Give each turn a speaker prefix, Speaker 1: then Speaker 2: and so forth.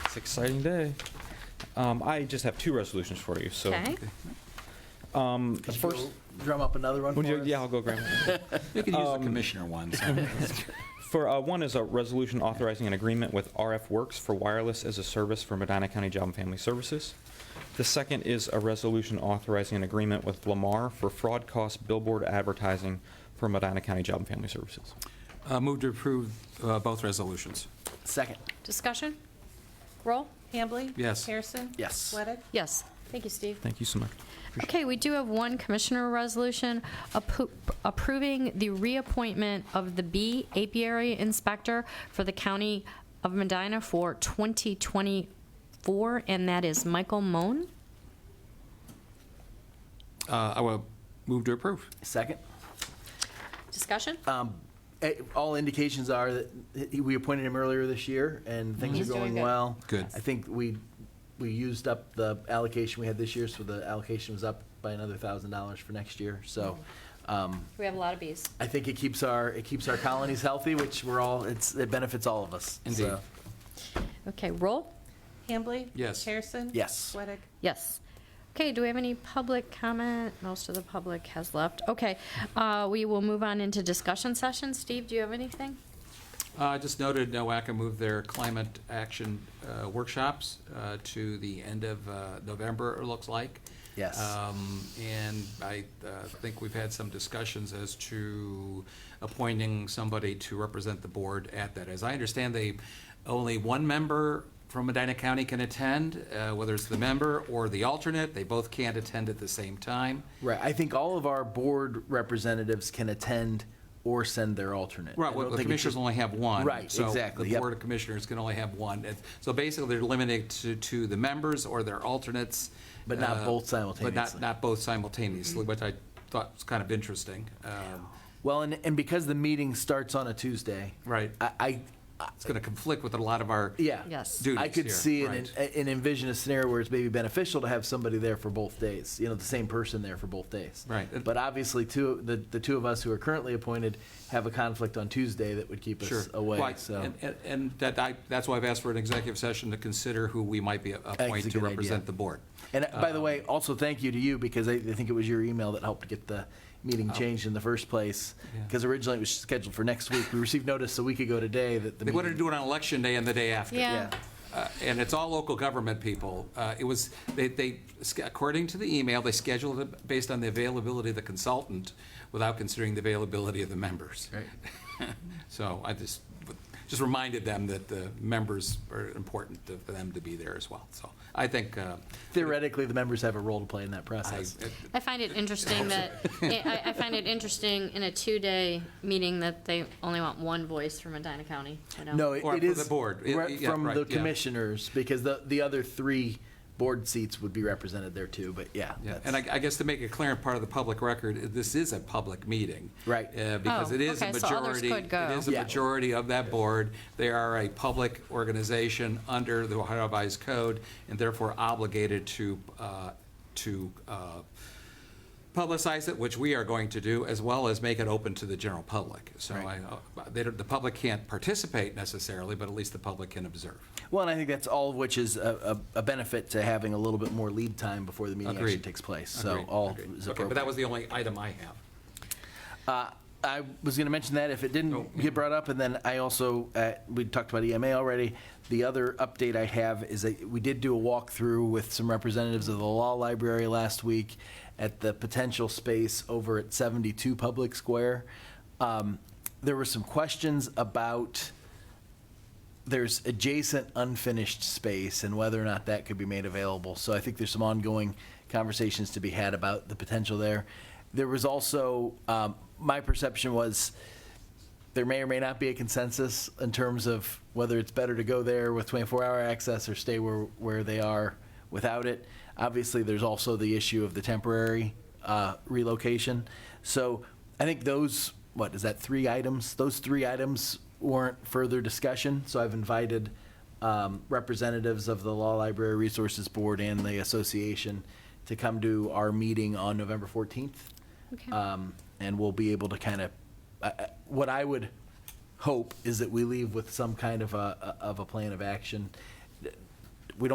Speaker 1: It's an exciting day. Um, I just have two resolutions for you, so.
Speaker 2: Okay.
Speaker 1: Um, the
Speaker 3: Could you
Speaker 1: first,
Speaker 3: Drum up another one
Speaker 1: would you-
Speaker 3: for us?
Speaker 1: yeah, I'll go, Graham.
Speaker 4: We could use the
Speaker 1: Um,
Speaker 4: commissioner ones.
Speaker 1: For, uh, one is a resolution authorizing an agreement with RF Works for wireless as a service for Medina County Job and Family Services. The second is a resolution authorizing an agreement with Lamar for fraud cost billboard advertising for Medina County Job and Family Services.
Speaker 4: Uh, Move to approve uh, both resolutions.
Speaker 3: Second.
Speaker 2: Discussion? Roll? Hambley?
Speaker 4: Yes.
Speaker 2: Harrison?
Speaker 3: Yes.
Speaker 2: Sweattick?
Speaker 5: Yes.
Speaker 2: Thank you, Steve.
Speaker 1: Thank you so much.
Speaker 5: Okay, we do have one commissioner resolution appro- approving the reappointment of the bee apiary inspector for the county of Medina for 2024, and that is Michael Moan.
Speaker 4: Uh, I will move to approve.
Speaker 3: Second.
Speaker 2: Discussion?
Speaker 3: Um, eh, All indications are that he- we appointed him earlier this year, and things are
Speaker 2: He's doing
Speaker 3: going
Speaker 2: good.
Speaker 3: well.
Speaker 4: Good.
Speaker 3: I think we, we used up the allocation we had this year, so the allocation was up by another thousand dollars for next year. So
Speaker 2: Mm-hmm.
Speaker 3: um,
Speaker 2: We have a lot of bees.
Speaker 3: I think it keeps our, it keeps our colonies healthy, which we're all, it's, it benefits all of us.
Speaker 4: Indeed.
Speaker 3: So,
Speaker 5: Okay, roll?
Speaker 2: Hambley?
Speaker 4: Yes.
Speaker 2: Harrison?
Speaker 3: Yes.
Speaker 2: Sweattick?
Speaker 5: Yes. Okay, do we have any public comment? Most of the public has left. Okay, uh, we will move on into discussion session. Steve, do you have anything?
Speaker 4: Uh, Just noted, NOACA moved their climate action uh, workshops uh, to the end of uh, November, it looks like.
Speaker 3: Yes.
Speaker 4: Um, And I uh, think we've had some discussions as to appointing somebody to represent the board at that. As I understand, they, only one member from Medina County can attend, uh, whether it's the member or the alternate. They both can't attend at the same time.
Speaker 3: Right, I think all of our board representatives can attend or send their alternate. I
Speaker 4: Right,
Speaker 3: don't
Speaker 4: well, the
Speaker 3: think it
Speaker 4: commissioners
Speaker 3: should-
Speaker 4: only have one.
Speaker 3: Right, exactly,
Speaker 4: So the
Speaker 3: yep.
Speaker 4: Board of Commissioners can only have one. It's- So basically, they're limited to, to the members or their alternates.
Speaker 3: But not
Speaker 4: uh,
Speaker 3: both
Speaker 4: But
Speaker 3: simultaneously.
Speaker 4: not, not both simultaneously, which I thought was kind of interesting. Um,
Speaker 3: Well, and, and because the meeting starts on a Tuesday.
Speaker 4: Right.
Speaker 3: I, I, I-
Speaker 4: It's going to conflict with a lot of our.
Speaker 3: yeah.
Speaker 5: Yes.
Speaker 4: Duties
Speaker 3: I could
Speaker 4: here,
Speaker 3: see and,
Speaker 4: right.
Speaker 3: and envision a scenario where it's maybe beneficial to have somebody there for both days, you know, the same person there for both days.
Speaker 4: Right.
Speaker 3: But obviously, two, the, the two of us who are currently appointed have a conflict on Tuesday that would keep
Speaker 4: Sure.
Speaker 3: us away,
Speaker 4: Right.
Speaker 3: so.
Speaker 4: And- and- And that, I, that's why I've asked for an executive session to consider who we might be
Speaker 3: That's a
Speaker 4: appointing
Speaker 3: good
Speaker 4: to
Speaker 3: idea.
Speaker 4: represent the board.
Speaker 3: And uh,
Speaker 4: um,
Speaker 3: by the way, also thank you to you because I, I think it was your email that helped get the meeting changed in the first place.
Speaker 4: Oh. Yeah.
Speaker 3: Because originally it was scheduled for next week. We received notice a week ago today that the
Speaker 4: They wanted to
Speaker 3: meeting.
Speaker 4: do it on election day and the day after.
Speaker 5: Yeah.
Speaker 4: Uh, and it's all local government people. Uh, It was, they, they, according to the email, they scheduled it based on the availability of the consultant without considering the availability of the members. So I just, just reminded them that the members are important to- for them to be there as well. So I think, uh,
Speaker 3: Theoretically, the members have a role to play in that
Speaker 4: I,
Speaker 3: process.
Speaker 5: I find it interesting that, I, I find it interesting in a two-day meeting that they only want one voice from Medina County, you know?
Speaker 3: No, it
Speaker 4: Or
Speaker 3: it
Speaker 4: for
Speaker 3: is.
Speaker 4: the board. It-
Speaker 3: re-
Speaker 4: yeah,
Speaker 3: From
Speaker 4: right,
Speaker 3: the
Speaker 4: yeah.
Speaker 3: commissioners, because the, the other three board seats would be represented there too, but yeah.
Speaker 4: Yeah,
Speaker 3: that's-
Speaker 4: and I I guess to make it clear and part of the public record, this is a public meeting.
Speaker 3: Right.
Speaker 4: uh, Because
Speaker 5: Oh,
Speaker 4: it is a
Speaker 5: okay, so others
Speaker 4: majority,
Speaker 5: could go.
Speaker 4: it is a
Speaker 3: Yeah.
Speaker 4: majority of that board. They are a public organization under the Ohio Revised Code and therefore obligated to, uh, to uh, publicize it, which we are going to do, as well as make it open to the general public. So I,
Speaker 3: Right.
Speaker 4: uh, they don't- the public can't participate necessarily, but at least the public can observe.
Speaker 3: Well, and I think that's all of which is a, a a benefit to having a little bit more lead time before the meeting actually
Speaker 4: Agreed.
Speaker 3: takes place. So
Speaker 4: Agreed,
Speaker 3: all
Speaker 4: agreed.
Speaker 3: is
Speaker 4: Okay, but that
Speaker 3: appropriate.
Speaker 4: was the only item I have.
Speaker 3: Uh, I was going to mention that if it
Speaker 4: Oh.
Speaker 3: didn't get brought up, and then I also, uh, we talked about EMA already. The other update I have is that we did do a walkthrough with some representatives of the Law Library last week at the potential space over at 72 Public Square. Um, There were some questions about there's adjacent unfinished space and whether or not that could be made available. So I think there's some ongoing conversations to be had about the potential there. There was also, um, my perception was, there may or may not be a consensus in terms of whether it's better to go there with 24-hour access or stay where, where they are without it. Obviously, there's also the issue of the temporary uh, relocation. So I think those, what, is that three items? Those three items warrant further discussion, so I've invited um, representatives of the Law Library Resources Board and the association to come to our meeting on November 14th.
Speaker 5: Okay.
Speaker 3: Um, And we'll be able to uh, kind of, what I would hope is that we leave with some kind of a, of a plan of action.